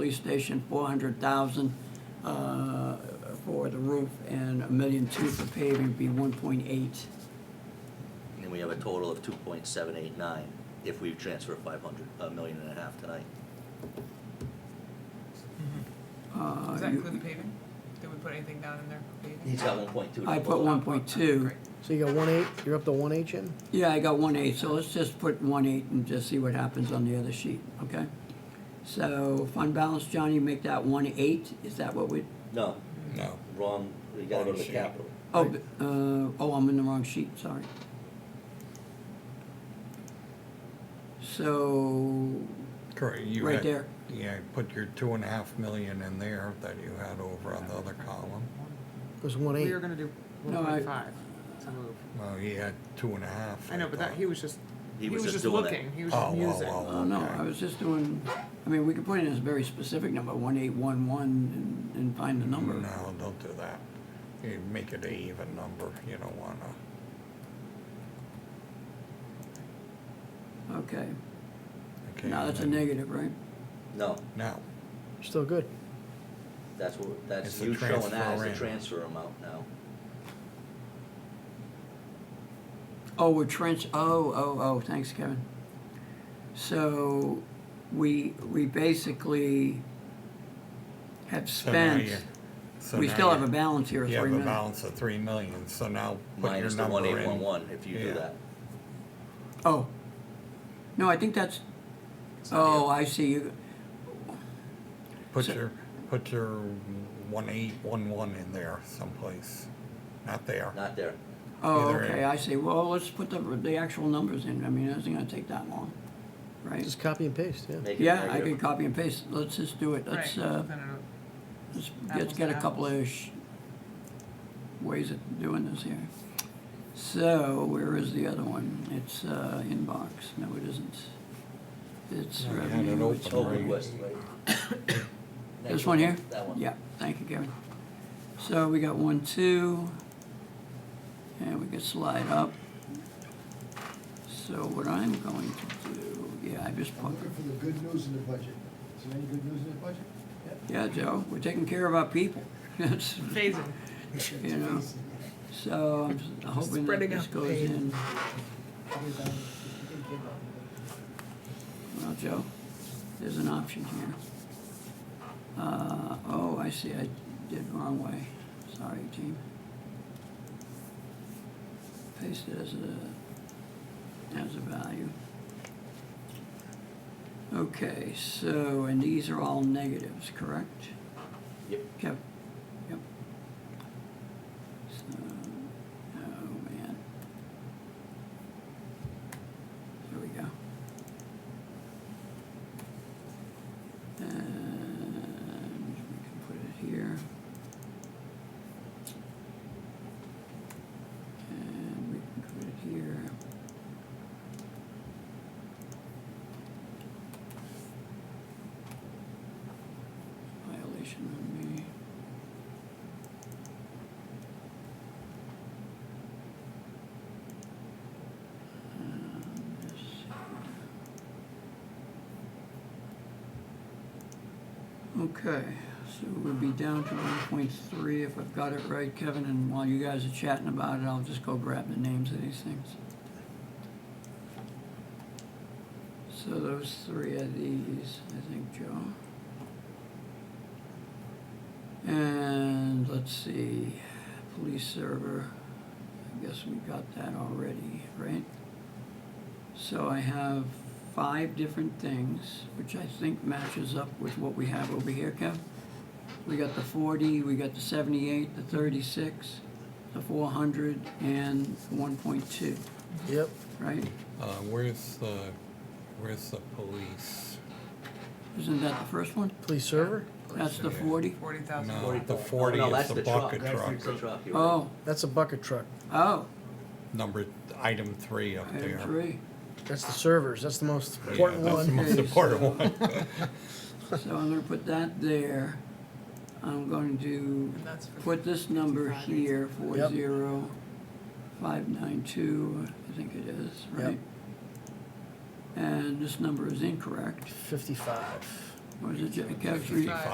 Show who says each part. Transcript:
Speaker 1: police station, four hundred thousand, uh, for the roof, and a million two for paving, be one point eight.
Speaker 2: And we have a total of two point seven eight nine if we transfer five hundred, a million and a half tonight.
Speaker 1: Uh,
Speaker 3: Does that
Speaker 1: you-
Speaker 3: include the paving? Did we put anything down in there for paving?
Speaker 2: He's got one point two.
Speaker 1: I put one point two.
Speaker 3: Great.
Speaker 4: So you got one eight, you're up to one eight, Jim?
Speaker 1: Yeah, I got one eight, so let's just put one eight and just see what happens on the other sheet, okay? So fund balance, Johnny, make that one eight, is that what we,
Speaker 2: No,
Speaker 5: No.
Speaker 2: wrong, we gotta go to
Speaker 5: Other
Speaker 2: capital.
Speaker 1: oh, b- uh, oh, I'm in the wrong sheet, sorry. So,
Speaker 5: Correct. you
Speaker 1: Right
Speaker 5: had-
Speaker 1: there.
Speaker 5: Yeah, put your two and a half million in there that you had over on the other column.
Speaker 4: It was one
Speaker 3: We
Speaker 4: eight.
Speaker 3: were gonna do
Speaker 1: No,
Speaker 3: one
Speaker 1: I-
Speaker 3: point five to move.
Speaker 5: Well, he had two and a half.
Speaker 3: I know, but that,
Speaker 5: thought.
Speaker 3: he was just,
Speaker 2: He
Speaker 3: he
Speaker 2: was
Speaker 3: was
Speaker 2: just
Speaker 3: just
Speaker 2: doing it.
Speaker 3: looking, he was just
Speaker 5: Oh, oh,
Speaker 3: musing.
Speaker 5: oh.
Speaker 1: oh no,
Speaker 5: Okay.
Speaker 1: I was just doing, I mean, we could put in a very specific number, one eight one one, and, and find the number.
Speaker 5: No, don't do that. You make it an even number, you don't wanna,
Speaker 1: Okay,
Speaker 5: okay?
Speaker 1: now that's a negative, right?
Speaker 2: No,
Speaker 5: No,
Speaker 4: Still good.
Speaker 2: that's what, that's
Speaker 5: It's the
Speaker 2: you showing
Speaker 5: transfer
Speaker 2: that as the
Speaker 5: in.
Speaker 2: transfer amount now.
Speaker 1: Oh, we're trench, oh, oh, oh, thanks, Kevin. So, we, we basically have
Speaker 5: So now
Speaker 1: spent,
Speaker 5: you- so
Speaker 1: we
Speaker 5: now
Speaker 1: still
Speaker 5: you-
Speaker 1: have a balance here of
Speaker 5: You
Speaker 1: three
Speaker 5: have a
Speaker 1: million.
Speaker 5: balance of three million, so now put your
Speaker 2: Minus the one
Speaker 5: number
Speaker 2: eight one
Speaker 5: in.
Speaker 2: one if you do
Speaker 5: Yeah.
Speaker 2: that.
Speaker 1: Oh, no, I think that's, oh, I see, you.
Speaker 5: Put
Speaker 1: So-
Speaker 5: your, put your one eight one one in there someplace, not there.
Speaker 2: Not there.
Speaker 1: oh,
Speaker 5: Either
Speaker 1: okay,
Speaker 5: end.
Speaker 1: I see, well, let's put the, the actual numbers in, I mean, it isn't gonna take that long, right?
Speaker 4: Just copy and paste, yeah.
Speaker 2: Make it
Speaker 1: Yeah, I
Speaker 2: negative.
Speaker 1: could copy and paste, let's just do it, let's,
Speaker 3: Right,
Speaker 1: uh,
Speaker 3: then it'll-
Speaker 1: let's
Speaker 3: Apples
Speaker 1: get, get a
Speaker 3: to
Speaker 1: couple of sh- ways of doing this here. So, where is the other one? It's, uh, inbox, no, it isn't. It's
Speaker 5: No, you had it
Speaker 1: revenue.
Speaker 5: open.
Speaker 1: It's-
Speaker 2: Oh, request, right?
Speaker 1: This one here?
Speaker 2: That one.
Speaker 1: Yeah, thank you, Gary. So we got one, two, and we can slide up. So what I'm going to do, yeah, I just
Speaker 6: I'm
Speaker 1: put,
Speaker 6: looking for the good news in the budget. Is there any good news in the budget?
Speaker 1: yeah, Joe, we're taking care of our people. That's,
Speaker 3: Phasing,
Speaker 1: you know,
Speaker 6: um,
Speaker 1: so I'm s- hoping that
Speaker 3: Spreading
Speaker 1: this
Speaker 3: out
Speaker 1: goes
Speaker 3: pain.
Speaker 1: in. Well, Joe, there's an option here. Uh, oh, I see, I did wrong way. Sorry, team. Paste it as a, as a value. Okay, so, and these are all negatives, correct?
Speaker 2: Yep.
Speaker 1: Kev, yep. So, oh, man. There we go. And we can put it here. And we can put it here. Violation of me. Um, let's see. Okay, so we'll be down to one point three if I've got it right, Kevin, and while you guys are chatting about it, I'll just go grab the names of these things. So those three are these, I think, Joe. And let's see, police server, I guess we got that already, right? So I have five different things, which I think matches up with what we have over here, Kev. We got the forty, we got the seventy-eight, the thirty-six, the four hundred, and one point two,
Speaker 4: Yep.
Speaker 1: right?
Speaker 5: Uh, where's the, where's the police?
Speaker 1: Isn't that the first one?
Speaker 4: Police server?
Speaker 1: That's the
Speaker 5: Yeah.
Speaker 1: forty?
Speaker 3: forty thousand.
Speaker 5: No, the
Speaker 2: Oh,
Speaker 5: forty
Speaker 2: no,
Speaker 5: is
Speaker 2: that's
Speaker 5: the
Speaker 2: truck.
Speaker 5: bucket
Speaker 2: That's the
Speaker 5: truck,
Speaker 2: truck, you're right.
Speaker 1: Oh,
Speaker 4: That's a bucket truck.
Speaker 1: oh,
Speaker 5: number, item three up there.
Speaker 1: item three.
Speaker 4: That's the servers. That's the most
Speaker 5: Yeah,
Speaker 4: important
Speaker 5: That's the
Speaker 4: one.
Speaker 5: most
Speaker 1: Okay,
Speaker 5: important one.
Speaker 1: So I'm gonna put that there. I'm going to
Speaker 3: And that's for,
Speaker 1: put this number here, four
Speaker 4: Yep.
Speaker 1: zero five nine two, I think it is,
Speaker 4: Yep.
Speaker 1: right? And this number is incorrect,
Speaker 4: Fifty-five.
Speaker 7: Or is it, Kev,
Speaker 1: Fifty-five.